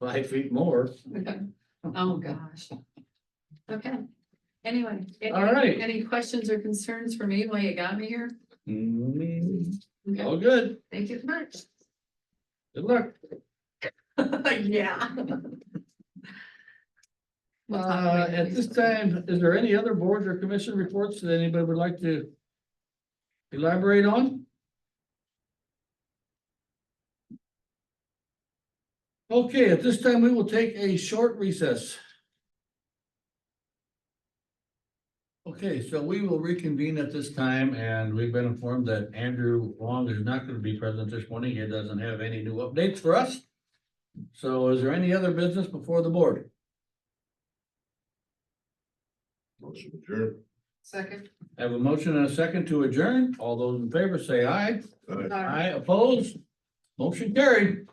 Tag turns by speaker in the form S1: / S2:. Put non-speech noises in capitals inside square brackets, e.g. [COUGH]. S1: five feet more.
S2: Oh, gosh. Okay, anyway. any-
S1: All right.
S2: Any questions or concerns for me while you got me here?
S1: Mm,
S2: Okay,
S1: All good,
S2: thank you
S1: [LAUGHS]
S2: so much.
S1: good luck.
S2: Yeah. We'll talk
S1: Uh,
S2: later,
S1: at
S2: please.
S1: this time, is there any other boards or commission reports that anybody would like to elaborate on? Okay, at this time, we will take a short recess. Okay, so we will reconvene at this time and we've been informed that Andrew Wong is not going to be present this morning. He doesn't have any new updates for us. So is there any other business before the board?
S3: Motion adjourned.
S2: Second.
S1: I have a motion and a second to adjourn. All those in favor say aye.
S3: Aye.
S1: Aye opposed. Motion carried.